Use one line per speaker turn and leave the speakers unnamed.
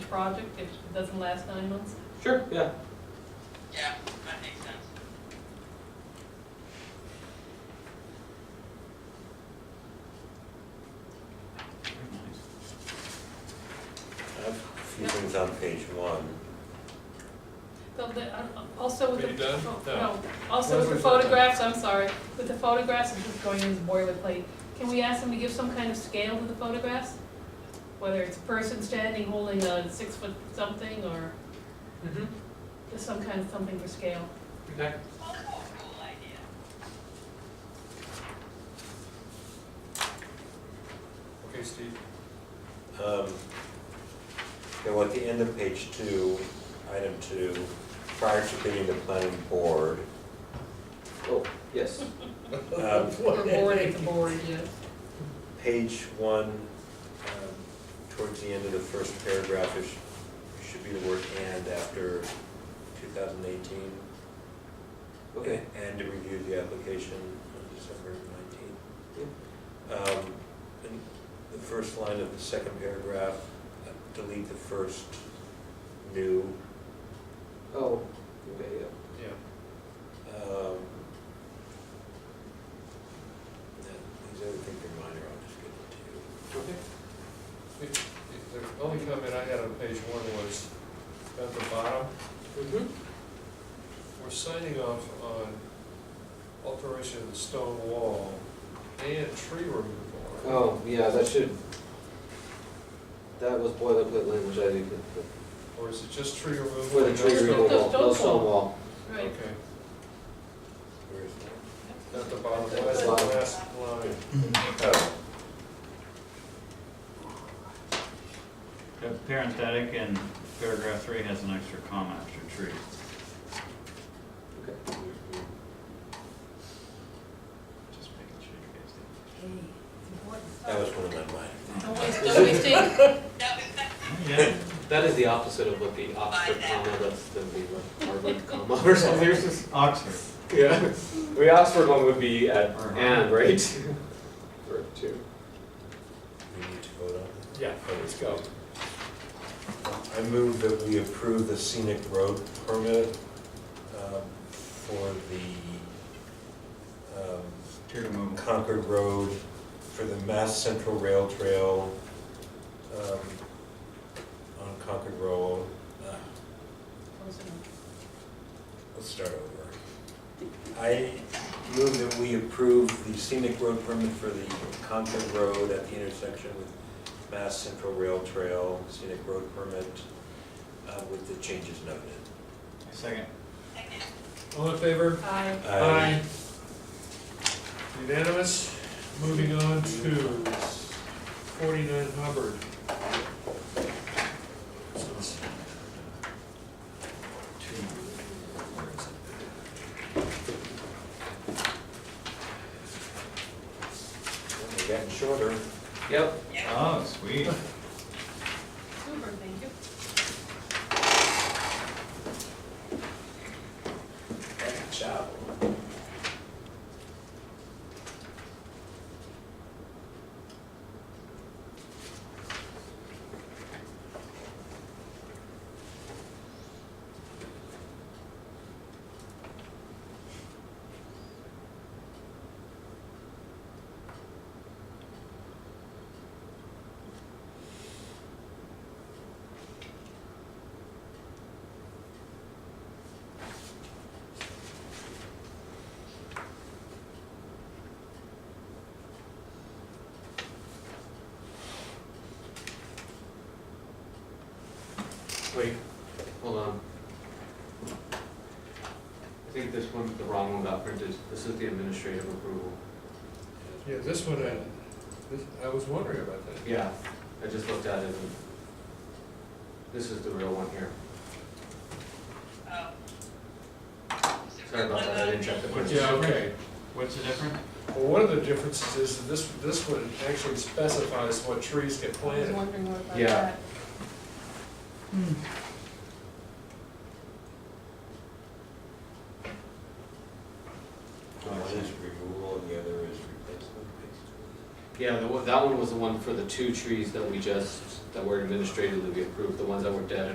project if it doesn't last nine months?
Sure, yeah.
Yeah, that makes sense.
I have a few things on page one.
So the- uh, Also with the.
Are you done?
oh,
No.
No, also with the photographs, I'm sorry, with the photographs, I'm just going in this boilerplate. Can we ask them to give some kind of scale to the photographs? Whether it's a person standing holding a six foot something or
Mm-hmm.
just some kind of something for scale.
Okay.
Oh, cool idea.
Okay, Steve.
Um, Okay, well, at the end of page two, item two, prior to being the planning board.
Oh, yes.
um,
Or board, it's a board, yes.
Page one, um, towards the end of the first paragraph, it sh- should be the word "and" after 2018.
Okay.
And to review the application on December nineteenth. And the first line of the second paragraph, uh, delete the first new.
Oh, okay, yeah.
Yeah.
um, and These other things are minor, I'll just give them to you.
Okay. The the only comment I had on page one was, at the bottom,
Mm-hmm.
we're signing off on alteration of the stone wall and tree removal.
Oh, yeah, that should, that was boilerplate language I did,
Or is it just tree removal?
for the
and no
tree
stone
removal,
wall?
no stone wall.
Right,
Okay,
Where is that?
at the bottom,
At the
that's the
bottom.
last line.
Uh, Parenthetic in paragraph three has an extra comma after tree.
Okay.
Just making sure you guys
hey, it's important
did.
That was
stuff.
one of my minor.
Don't waste, don't waste ink.
That was, that
Yeah,
That is the opposite of what the Oxford comma, that's the the Harvard comma or something.
Oxford.
Yeah, the Oxford one would be at
Or-
and, right? Or two.
We need to vote on it.
Yeah, let's go.
I move that we approve the scenic road permit um, for the um,
Tree removal.
Concord Road for the Mass Central Rail Trail um, on Concord Road. Uh,
Close enough.
Let's start over. I move that we approve the scenic road permit for the Concord Road at the intersection with Mass Central Rail Trail, scenic road permit uh, with the changes noted.
Second.
second.
All in favor?
Aye.
I-
Unanimous. Moving on to forty-nine Hubbard.
They're Getting shorter.
Yep.
Yeah.
Oh, sweet.
Super, thank you.
Good job.
Wait, hold on. I think this one, the wrong one got printed. This is the administrative approval.
Yeah, this one, I, this, I was wondering about that.
Yeah, I just looked at it and this is the real one here.
Oh. Is it
Sorry about that, I didn't check the print.
Yeah, okay.
What's the difference?
Well, one of the differences is that this, this one actually specifies what trees
I
get
was
planted.
wondering what about that.
Yeah.
One is removal and the other is replacement, basically.
Yeah, the one, that one was the one for the two trees that we just that were administratively we approved, the ones that were dead and